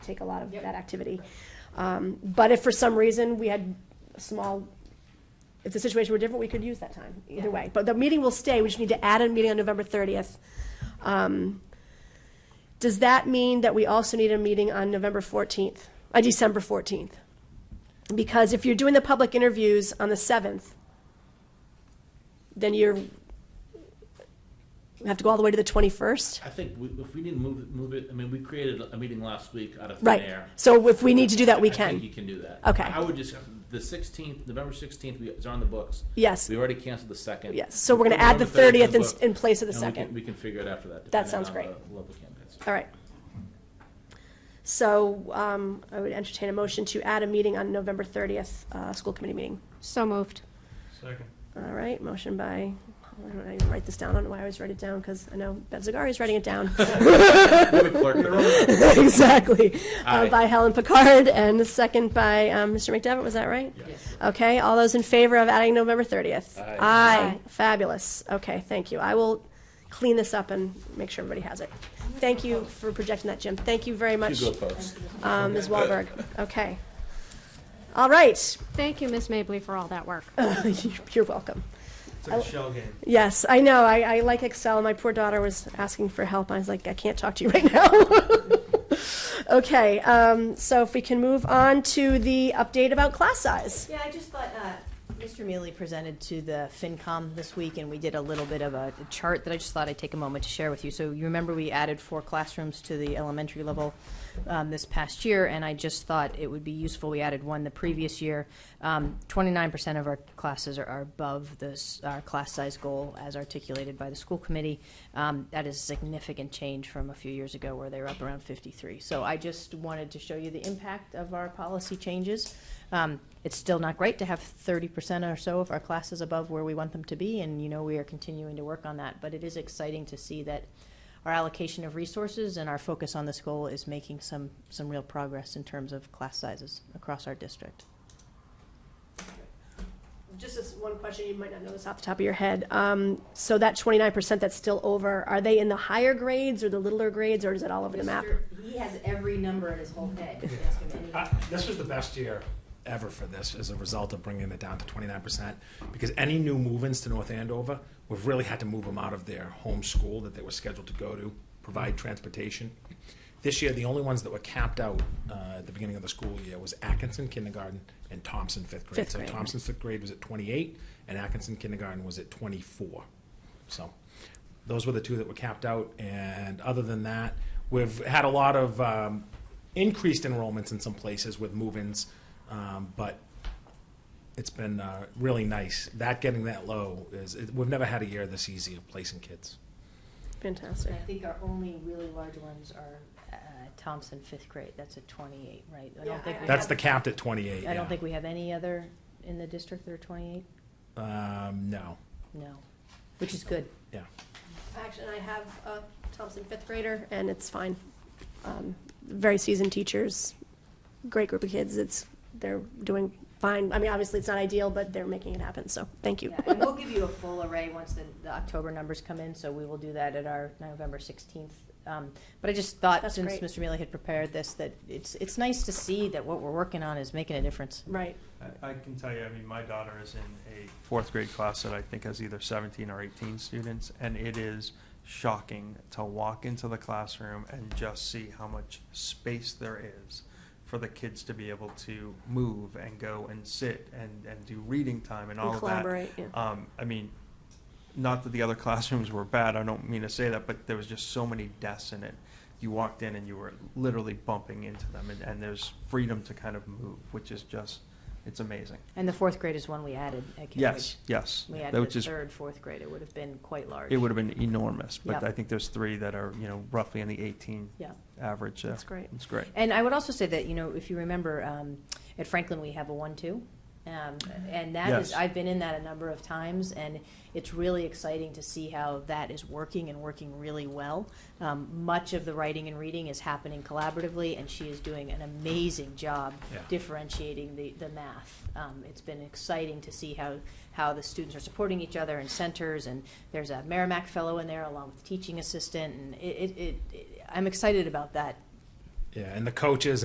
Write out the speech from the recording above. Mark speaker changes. Speaker 1: take a lot of
Speaker 2: Yep.
Speaker 1: that activity. Um, But if for some reason we had a small, if the situation were different, we could use that time,
Speaker 2: Yeah.
Speaker 1: either way. But the meeting will stay, we just need to add a meeting on November 30th. Um, Does that mean that we also need a meeting on November 14th, uh, December 14th? Because if you're doing the public interviews on the 7th, then you're, we have to go all the way to the 21st?
Speaker 3: I think we, if we need to move it, move it, I mean, we created a meeting last week out of thin
Speaker 1: Right.
Speaker 3: air.
Speaker 1: So if we need to do that, we
Speaker 3: I think you
Speaker 1: can.
Speaker 3: can do that.
Speaker 1: Okay.
Speaker 3: I would just, the sixteenth, November sixteenth, we, it's on the books.
Speaker 1: Yes.
Speaker 3: We already canceled the second.
Speaker 1: Yes. So we're gonna
Speaker 3: November
Speaker 1: add the
Speaker 3: 30th
Speaker 1: 30th
Speaker 3: is
Speaker 1: in,
Speaker 3: booked,
Speaker 1: in place of the
Speaker 3: and we can-
Speaker 1: second.
Speaker 3: We can figure it after that.
Speaker 1: That
Speaker 3: depending
Speaker 1: sounds
Speaker 3: on
Speaker 1: great.
Speaker 3: the Level of campaigns.
Speaker 1: All right. So, um, I would entertain a motion to add a meeting on November thirtieth, uh, school committee meeting.
Speaker 4: So moved.
Speaker 5: Second.
Speaker 1: All right, motion by, I don't know, I didn't write this down, I don't know why I always write it down, because I know Bev Zagari is writing it down.
Speaker 3: We have a clerk.
Speaker 1: Exactly. Uh,
Speaker 3: Aye.
Speaker 1: by Helen Picard, and the second by, um, Mr. McDevitt, was that right?
Speaker 2: Yes.
Speaker 1: Okay, all those in favor of adding November 30th?
Speaker 3: Aye.
Speaker 1: Aye, fabulous. Okay, thank you. I will clean this up and make sure everybody has it. Thank you for projecting that, Jim. Thank you very much,
Speaker 3: You go, folks.
Speaker 1: um, Ms. Wahlberg. Okay. All right,
Speaker 4: Thank you, Ms. Mably, for all that work.
Speaker 1: you're welcome.
Speaker 5: It's like a shell game.
Speaker 1: Yes, I know, I, I like Excel. My poor daughter was asking for help. I was like, I can't talk to you right now. Okay, um, so if we can move on to the update about class size.
Speaker 2: Yeah, I just thought, uh, Mr. Mealy presented to the FinCom this week, and we did a little bit of a chart that I just thought I'd take a moment to share with you. So you remember we added four classrooms to the elementary level um, this past year, and I just thought it would be useful, we added one the previous year. Um, 29% of our classes are- are above this, our class size goal as articulated by the school committee. Um, That is a significant change from a few years ago where they were up around 53. So I just wanted to show you the impact of our policy changes. Um, it's still not great to have 30% or so of our classes above where we want them to be, and you know we are continuing to work on that. But it is exciting to see that our allocation of resources and our focus on this goal is making some some real progress in terms of class sizes across our district.
Speaker 1: Just this one question, you might not know this off the top of your head. Um, so that twenty-nine percent that's still over, are they in the higher grades or the littler grades, or is it all over the map?
Speaker 6: Mr. He has every number in his whole head. You can ask him any-
Speaker 7: I- This was the best year ever for this as a result of bringing it down to twenty-nine percent. Because any new move-ins to North Andover, we've really had to move them out of their home school that they were scheduled to go to, provide transportation. This year, the only ones that were capped out uh, at the beginning of the school year was Atkinson kindergarten and Thompson fifth grade.
Speaker 1: Fifth grade.
Speaker 7: So Thompson's fifth grade was at twenty-eight, and Atkinson kindergarten was at twenty-four. So those were the two that were capped out. And other than that, we've had a lot of um, increased enrollments in some places with move-ins, um, but it's been uh, really nice. That getting that low is it, we've never had a year this easy of placing kids.
Speaker 1: Fantastic.
Speaker 2: And I think our only really large ones are uh, Thompson fifth grade. That's a 28, right? I
Speaker 1: Yeah,
Speaker 2: don't think
Speaker 1: I-
Speaker 2: we
Speaker 7: That's
Speaker 2: have-
Speaker 7: the capped at 28.
Speaker 2: I
Speaker 7: yeah.
Speaker 2: don't think we have any other in the district that are 28.
Speaker 7: Um, no.
Speaker 2: No, which is good.
Speaker 7: Yeah.
Speaker 1: Actually, I have a Thompson fifth grader, and it's fine. Um, Very seasoned teachers, great group of kids, it's, they're doing fine. I mean, obviously, it's not ideal, but they're making it happen, so thank you.
Speaker 2: Yeah, and we'll give you a full array once the, the October numbers come in, so we will do that at our November sixteenth. Um, but I just thought,
Speaker 1: That's
Speaker 2: since
Speaker 1: great.
Speaker 2: Mr. Mealy had prepared this, that it's, it's nice to see that what we're working on is making a difference.
Speaker 1: Right,
Speaker 5: I, I can tell you, I mean, my daughter is in a fourth grade class that I think has either 17 or 18 students, and it is shocking to walk into the classroom and just see how much space there is for the kids to be able to move and go and sit and, and do reading time and all
Speaker 1: and
Speaker 5: of that.
Speaker 1: collaborate, yeah.
Speaker 5: Um, I mean, not that the other classrooms were bad, I don't mean to say that, but there was just so many desks in it. You walked in and you were literally bumping into them, and, and there's freedom to kind of move, which is just, it's amazing.
Speaker 2: And the fourth grade is one we added at Cambridge.
Speaker 5: Yes, yes.
Speaker 2: We
Speaker 5: That
Speaker 2: added
Speaker 5: was
Speaker 2: the
Speaker 5: just-
Speaker 2: third, fourth grade, it would have been quite large.
Speaker 5: It would have been enormous, but
Speaker 2: Yeah.
Speaker 5: I think there's three that are, you know, roughly in the eighteen
Speaker 2: Yeah.
Speaker 5: average. uh,
Speaker 1: That's great.
Speaker 5: It's great.
Speaker 2: And I would also say that, you know, if you remember, um, at Franklin, we have a one-two. Um, and that is-
Speaker 5: Yes.
Speaker 2: I've been in that a number of times, and it's really exciting to see how that is working and working really well. Um, much of the writing and reading is happening collaboratively, and she is doing an amazing job
Speaker 7: Yeah.
Speaker 2: differentiating the, the math. Um, it's been exciting to see how, how the students are supporting each other in centers, and there's a Merrimack fellow in there along with the teaching assistant, and it, it, it, I'm excited about that
Speaker 7: Yeah, and the coaches